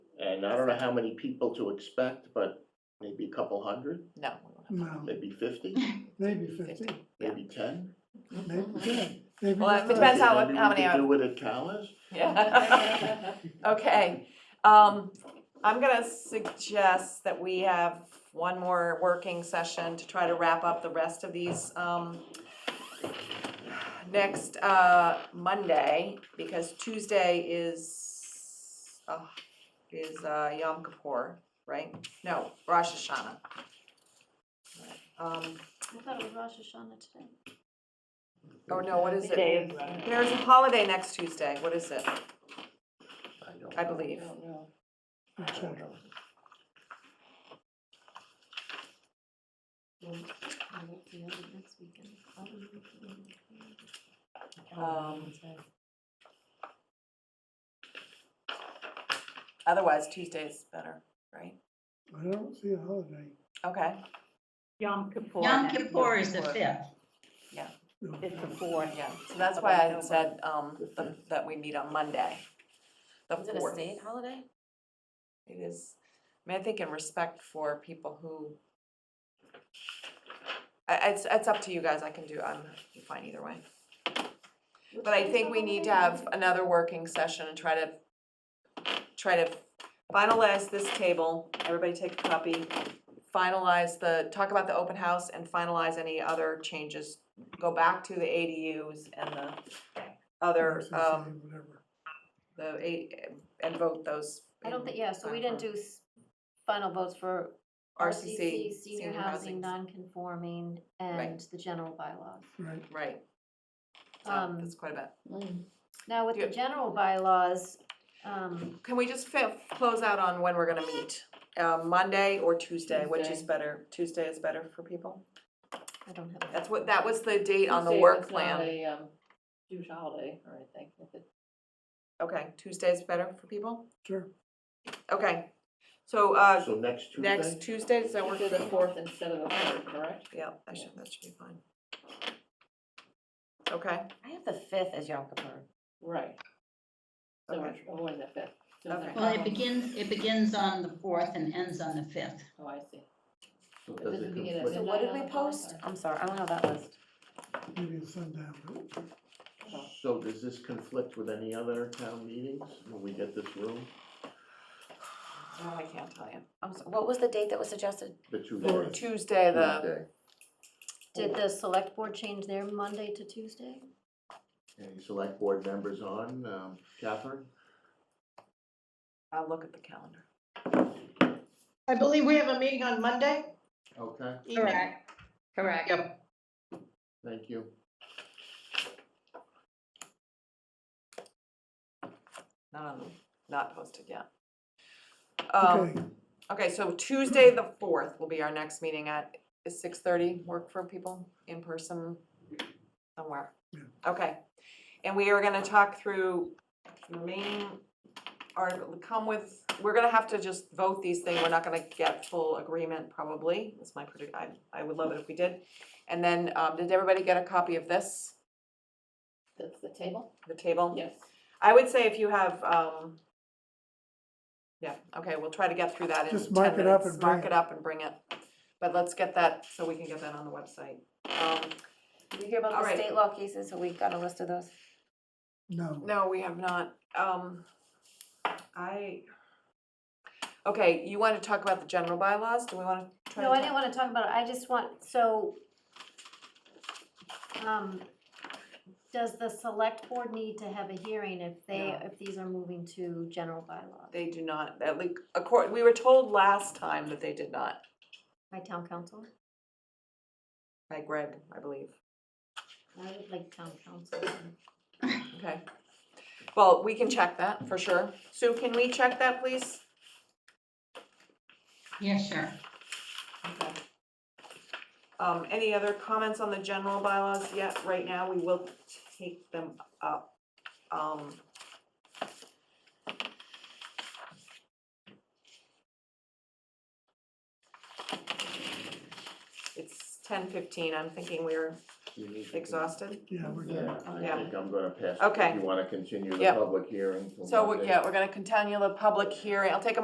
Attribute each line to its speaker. Speaker 1: And I don't know how many people to expect, but maybe a couple hundred,
Speaker 2: No. we won't have
Speaker 3: No,
Speaker 1: maybe fifty,
Speaker 3: maybe fifty,
Speaker 1: maybe ten.
Speaker 2: that.
Speaker 3: Oh, maybe ten, maybe.
Speaker 2: Well, it
Speaker 3: just
Speaker 2: depends
Speaker 3: us.
Speaker 2: how- how many
Speaker 1: Maybe
Speaker 2: are-
Speaker 1: we could do it at Callis,
Speaker 2: Yeah. Okay, um, I'm gonna suggest that we have one more working session to try to wrap up the rest of these, um, next, uh, Monday, because Tuesday is, uh, is, uh, Yom Kippur, right? No, Rosh Hashanah. Um,
Speaker 4: I thought it was Rosh Hashanah today.
Speaker 2: oh no, what is it?
Speaker 5: Dave.
Speaker 2: There's a holiday next Tuesday, what is it,
Speaker 1: I don't
Speaker 2: I
Speaker 1: know.
Speaker 2: believe?
Speaker 3: I'll check.
Speaker 4: I won't be able to next weekend. I'll be working.
Speaker 2: Um, Otherwise, Tuesday's better, right?
Speaker 3: I don't see a holiday,
Speaker 2: Okay,
Speaker 5: Yom Kippur.
Speaker 6: Yom Kippur is the
Speaker 5: Kippur.
Speaker 6: fifth.
Speaker 3: no.
Speaker 5: It's the fourth.
Speaker 2: yeah, so that's why I had said, um, the- that we meet on Monday, the
Speaker 4: Is it a
Speaker 2: fourth.
Speaker 4: state holiday?
Speaker 2: It is, I mean, I think in respect for people who, I, I- it's, it's up to you guys, I can do, I'm fine either way. But I think we need to have another working session and try to, try to finalize this table, everybody take a copy, finalize the, talk about the open house and finalize any other changes. Go back to the ADUs and the other,
Speaker 3: Versus
Speaker 2: um,
Speaker 3: a whatever.
Speaker 2: the, A- and vote those.
Speaker 4: I don't
Speaker 2: in
Speaker 4: think, yeah, so we didn't do s- final votes for
Speaker 2: RCC,
Speaker 4: RCC, senior housing,
Speaker 2: housing.
Speaker 4: non-conforming, and the general bylaws.
Speaker 3: Right,
Speaker 2: Right. So
Speaker 4: Um,
Speaker 2: that's quite a bit.
Speaker 4: Now, with the
Speaker 2: Yeah.
Speaker 4: general bylaws, um,
Speaker 2: Can we just fi- close out on when we're gonna meet? Uh, Monday or Tuesday, which is
Speaker 5: Tuesday.
Speaker 2: better? Tuesday is better for people?
Speaker 4: I don't have.
Speaker 2: That's what, that was the date on the
Speaker 5: Tuesday
Speaker 2: work
Speaker 5: was not
Speaker 2: plan.
Speaker 5: a, um, Jewish holiday or anything. if it-
Speaker 2: Okay, Tuesday's better for people?
Speaker 3: sure,
Speaker 2: Okay, so, uh,
Speaker 1: So next Tuesday?
Speaker 2: next Tuesday, does that work
Speaker 5: Tuesday
Speaker 2: for
Speaker 5: the fourth instead of the third, correct?
Speaker 2: Yeah, I should, that should be fine. Okay,
Speaker 7: I have the fifth as Yom Kippur.
Speaker 5: Right. So we're
Speaker 2: Okay.
Speaker 5: avoiding the fifth. So
Speaker 2: Okay.
Speaker 5: there's no
Speaker 6: Well, it
Speaker 5: problem.
Speaker 6: begins, it begins on the fourth and ends on the fifth.
Speaker 5: Oh, I see.
Speaker 1: So
Speaker 5: It
Speaker 1: does it
Speaker 5: doesn't begin at
Speaker 1: conflict?
Speaker 7: So what did
Speaker 5: midnight
Speaker 7: we
Speaker 5: on the fourth,
Speaker 7: post?
Speaker 5: or-
Speaker 7: I'm sorry, I don't have that list.
Speaker 3: maybe it's sundown, but
Speaker 5: Oh,
Speaker 1: So does this conflict with any other town meetings when we get this room,
Speaker 2: Oh, I can't tell you.
Speaker 7: I'm sorry, what was the date that was suggested?
Speaker 1: the two
Speaker 3: Or
Speaker 1: days?
Speaker 2: Tuesday, the,
Speaker 1: Tuesday.
Speaker 4: Did the select board change their Monday to Tuesday?
Speaker 1: Any select board members on, um, Catherine?
Speaker 2: I'll look at the calendar.
Speaker 8: I believe we have a meeting on Monday
Speaker 1: Okay,
Speaker 8: evening.
Speaker 6: Correct.
Speaker 8: Yep.
Speaker 1: thank you.
Speaker 2: Not on, not posted yet. Um,
Speaker 3: okay,
Speaker 2: Okay, so Tuesday, the fourth will be our next meeting at, is six thirty work for people in person somewhere?
Speaker 3: Yeah.
Speaker 2: Okay, and we are gonna talk through the remaining article, come with, we're gonna have to just vote these things, we're not gonna get full agreement probably, that's my predict, I, I would love it if we did. And then, um, did everybody get a copy of this,
Speaker 5: That's the table?
Speaker 2: the table?
Speaker 5: Yes.
Speaker 2: I would say if you have, um, yeah, okay, we'll try to get through that in ten minutes.
Speaker 3: Just mark it up and bring
Speaker 2: Mark
Speaker 3: it.
Speaker 2: it up and bring it. But let's get that, so we can get that on the website. Um,
Speaker 7: Did you hear about
Speaker 2: All
Speaker 7: the
Speaker 2: right.
Speaker 7: state law cases? So we got a list of those?
Speaker 3: no.
Speaker 2: no, we have not, um, I, okay, you wanna talk about the general bylaws? Do we wanna try to?
Speaker 4: No, I
Speaker 2: talk-
Speaker 4: didn't wanna talk about it, I just want, so. Um, does the select board need to have a hearing if they,
Speaker 2: No.
Speaker 4: if these are moving to general bylaws
Speaker 2: They do not, at least, accord, we were told last time that they did not,
Speaker 4: by town council?
Speaker 2: by Greg, I believe.
Speaker 4: I would like town council.
Speaker 2: Okay. Well, we can check that for sure. Sue, can we check that, please?
Speaker 6: Yeah, sure.
Speaker 2: Okay. Um, any other comments on the general bylaws yet? Right now, we will take them up. Um. It's ten fifteen, I'm thinking we're
Speaker 1: You need to-
Speaker 2: exhausted.
Speaker 3: Yeah, we're good.
Speaker 1: Yeah,
Speaker 2: Yeah.
Speaker 1: I think I'm gonna pass.
Speaker 2: Okay.
Speaker 1: You wanna continue the
Speaker 2: Yep.
Speaker 1: public hearing? till
Speaker 2: So, we-
Speaker 1: Monday?
Speaker 2: yeah, we're gonna continue the public hearing. I'll take a